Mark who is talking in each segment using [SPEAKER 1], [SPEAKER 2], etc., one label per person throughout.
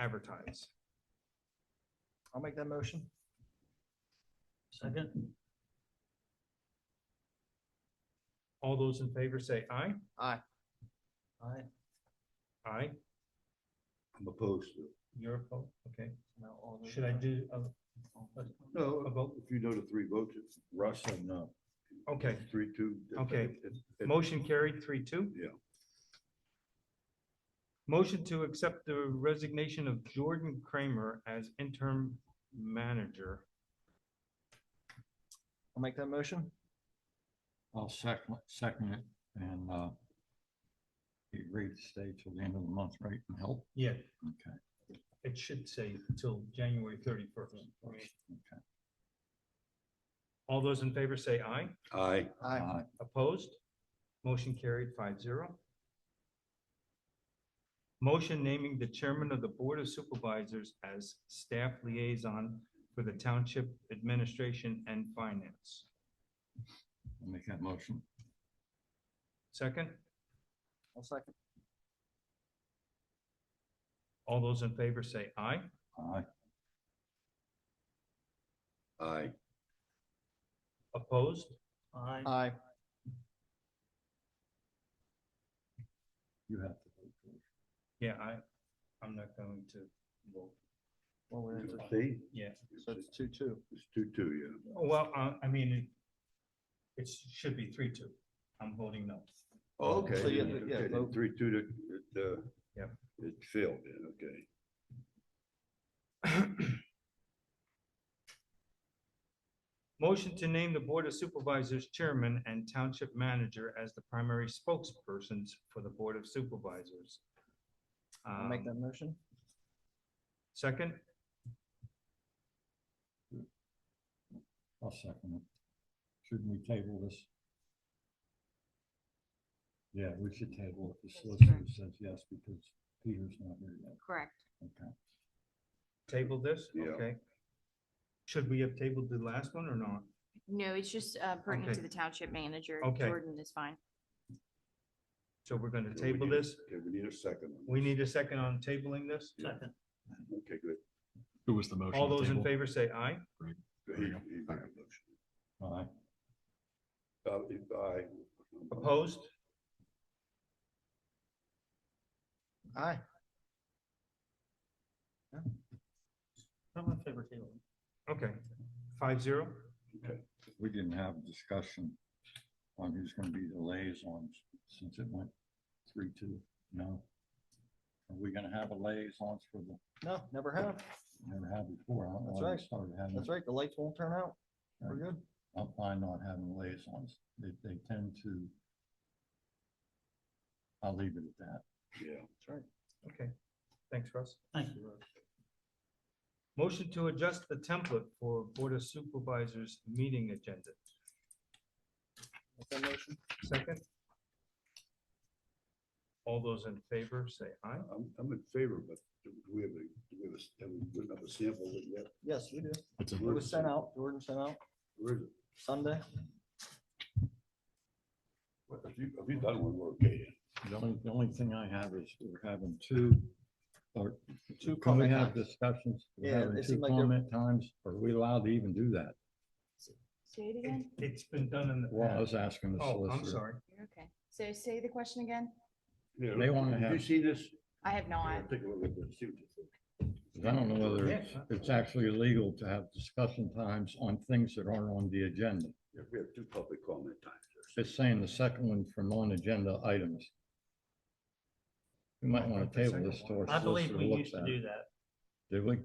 [SPEAKER 1] advertise. I'll make that motion.
[SPEAKER 2] Second?
[SPEAKER 1] All those in favor say aye.
[SPEAKER 2] Aye.
[SPEAKER 1] Aye.
[SPEAKER 3] I'm opposed to. it.
[SPEAKER 1] You're opposed, okay.
[SPEAKER 2] Now all those-
[SPEAKER 1] Should I do, uh, a-
[SPEAKER 3] No, about, if you know the three votes, it's Russ and, uh,
[SPEAKER 1] okay,
[SPEAKER 3] three, two.
[SPEAKER 1] Okay.
[SPEAKER 3] it's- it's-
[SPEAKER 1] motion carried, three, two.
[SPEAKER 3] Yeah.
[SPEAKER 1] Motion to accept the resignation of Jordan Kramer as interim manager.
[SPEAKER 2] I'll make that motion.
[SPEAKER 4] I'll second, second it and, uh, you agree to stay till the end of the month, right, and help?
[SPEAKER 1] Yeah,
[SPEAKER 4] Okay,
[SPEAKER 1] it should say till January thirty-first.
[SPEAKER 4] okay.
[SPEAKER 1] All those in favor say aye.
[SPEAKER 3] Aye,
[SPEAKER 2] Aye.
[SPEAKER 4] Uh,
[SPEAKER 1] Opposed? Motion carried 5-0. Motion naming the chairman of the Board of Supervisors as staff liaison for the Township Administration and Finance.
[SPEAKER 4] I'll make that motion.
[SPEAKER 1] Second,
[SPEAKER 2] I'll second.
[SPEAKER 1] all those in favor say aye.
[SPEAKER 4] Aye.
[SPEAKER 3] aye,
[SPEAKER 1] Opposed?
[SPEAKER 2] Aye. Aye.
[SPEAKER 4] You have to. vote for it.
[SPEAKER 1] Yeah, I, I'm not going to vote.
[SPEAKER 2] Well, we're into,
[SPEAKER 3] see,
[SPEAKER 1] Yeah,
[SPEAKER 2] so it's two, two.
[SPEAKER 3] it's two, two, yeah,
[SPEAKER 1] well, uh, I, I mean, it- it should be three, two. I'm voting no.
[SPEAKER 3] Oh, okay.
[SPEAKER 2] So, yeah,
[SPEAKER 3] okay,
[SPEAKER 2] yeah,
[SPEAKER 3] then
[SPEAKER 2] vote.
[SPEAKER 3] Three, two, to, it, uh.
[SPEAKER 1] Yeah.
[SPEAKER 3] It failed, yeah, okay,
[SPEAKER 1] Motion to name the Board of Supervisors Chairman and Township Manager as the primary spokespersons for the Board of Supervisors.
[SPEAKER 2] I'll make
[SPEAKER 1] Um,
[SPEAKER 2] that motion.
[SPEAKER 1] Second,
[SPEAKER 4] I'll second it. Shouldn't we table this? Yeah, we should table it. The solicitor says yes because Peter's not here yet.
[SPEAKER 5] Correct.
[SPEAKER 4] Okay.
[SPEAKER 1] table this,
[SPEAKER 3] Yeah.
[SPEAKER 1] okay. Should we have tabled the last one or not?
[SPEAKER 5] No, it's just uh, pertinent
[SPEAKER 1] Okay.
[SPEAKER 5] to the township manager.
[SPEAKER 1] Okay.
[SPEAKER 5] Jordan is fine.
[SPEAKER 1] So we're gonna
[SPEAKER 3] we
[SPEAKER 1] table
[SPEAKER 3] need-
[SPEAKER 1] this.
[SPEAKER 3] okay, we need a second. on
[SPEAKER 1] We
[SPEAKER 3] this.
[SPEAKER 1] need a second on tabling this.
[SPEAKER 3] Second. Okay, good.
[SPEAKER 6] Who was the motion?
[SPEAKER 1] All
[SPEAKER 6] to
[SPEAKER 1] those in
[SPEAKER 6] table?
[SPEAKER 1] favor say aye.
[SPEAKER 3] He-
[SPEAKER 6] There you go.
[SPEAKER 3] he made a motion.
[SPEAKER 4] Aye.
[SPEAKER 3] Uh, if I.
[SPEAKER 1] Opposed?
[SPEAKER 2] Aye.
[SPEAKER 1] I'm in favor tabling. Okay, five zero.
[SPEAKER 4] We didn't have a discussion on who's gonna be the liaison since it went three, two, no? Are we gonna have a liaison for the,
[SPEAKER 2] No, never have.
[SPEAKER 4] never had before? I don't know
[SPEAKER 2] That's
[SPEAKER 4] why we
[SPEAKER 2] right.
[SPEAKER 4] Started having.
[SPEAKER 2] That's right. The lights won't turn out. We're good.
[SPEAKER 4] I'm fine not having liaisons. They, they tend to. I'll leave it at that.
[SPEAKER 3] Yeah.
[SPEAKER 2] That's right.
[SPEAKER 1] Okay, thanks, Russ.
[SPEAKER 2] Thank
[SPEAKER 1] you. Motion to adjust the template for Board of Supervisors meeting agenda.
[SPEAKER 2] Make that motion.
[SPEAKER 1] Second. All those in favor, say aye.
[SPEAKER 3] I'm, I'm in favor, but do we have a, do we have a, have we written up a sample of it yet?
[SPEAKER 2] Yes, we do.
[SPEAKER 6] It's a
[SPEAKER 2] It was sent out. Jordan sent out
[SPEAKER 3] Where is it?
[SPEAKER 2] Sunday.
[SPEAKER 3] Well, If you, if you done one, we're okay.
[SPEAKER 4] The only, the only thing I have is we're having two, or
[SPEAKER 2] Two
[SPEAKER 4] can we
[SPEAKER 2] comment
[SPEAKER 4] have
[SPEAKER 2] times.
[SPEAKER 4] discussions? We're
[SPEAKER 2] Yeah, it
[SPEAKER 4] having two
[SPEAKER 2] seemed like they're-
[SPEAKER 4] Comment times, are we allowed to even do that?
[SPEAKER 5] Say it
[SPEAKER 1] It- It's been done in the
[SPEAKER 4] Well, I
[SPEAKER 1] past.
[SPEAKER 4] was asking the
[SPEAKER 1] Oh,
[SPEAKER 4] solicitor.
[SPEAKER 1] I'm sorry.
[SPEAKER 5] You're okay. So say the question again.
[SPEAKER 3] Yeah.
[SPEAKER 4] They wanna
[SPEAKER 3] You
[SPEAKER 4] have-
[SPEAKER 3] see this?
[SPEAKER 5] I have
[SPEAKER 3] Yeah,
[SPEAKER 5] not.
[SPEAKER 3] Take a look at this. see what you think.
[SPEAKER 4] 'Cause I don't know whether
[SPEAKER 1] Yeah. uh,
[SPEAKER 4] it's, it's actually illegal to have discussion times on things that aren't on the agenda.
[SPEAKER 3] Yeah, We have two public comment times. here.
[SPEAKER 4] Just saying the second one for non-agenda items. We might want to table this to our
[SPEAKER 7] I believe
[SPEAKER 4] solicitor
[SPEAKER 7] we
[SPEAKER 4] looks
[SPEAKER 7] used to
[SPEAKER 4] at.
[SPEAKER 7] do
[SPEAKER 4] it.
[SPEAKER 7] that.
[SPEAKER 4] Did we?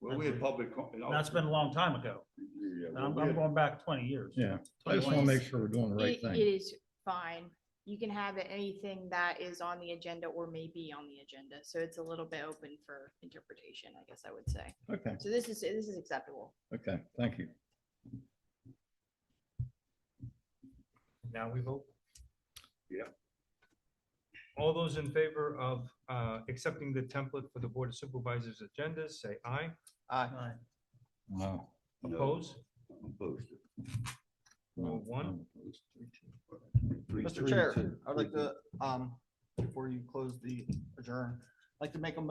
[SPEAKER 3] Well, we had public. com- and all-
[SPEAKER 7] That's been a long time ago.
[SPEAKER 3] Yeah,
[SPEAKER 7] And
[SPEAKER 3] well,
[SPEAKER 7] I'm,
[SPEAKER 3] we
[SPEAKER 7] I'm
[SPEAKER 3] had-
[SPEAKER 7] going back twenty years.
[SPEAKER 4] Yeah, I just want to make sure we're doing the right
[SPEAKER 5] It it
[SPEAKER 4] thing.
[SPEAKER 5] is fine. You can have anything that is on the agenda or may be on the agenda. So it's a little bit open for interpretation, I guess I would say.
[SPEAKER 4] Okay,
[SPEAKER 5] So this is, this is acceptable.
[SPEAKER 4] okay, thank you.
[SPEAKER 1] Now we vote.
[SPEAKER 3] Yeah.
[SPEAKER 1] All those in favor of uh, accepting the template for the Board of Supervisors agendas, say aye.
[SPEAKER 2] Aye.
[SPEAKER 7] Aye.
[SPEAKER 4] No.
[SPEAKER 3] No,
[SPEAKER 1] Oppose?
[SPEAKER 3] I'm Opposed.
[SPEAKER 4] no,
[SPEAKER 1] Well, one.
[SPEAKER 4] I'm opposed.
[SPEAKER 3] Three,
[SPEAKER 2] Mr.
[SPEAKER 3] three,
[SPEAKER 2] Chair,
[SPEAKER 3] two.
[SPEAKER 2] I'd like to, um, before you close the adjourn, Like to make a motion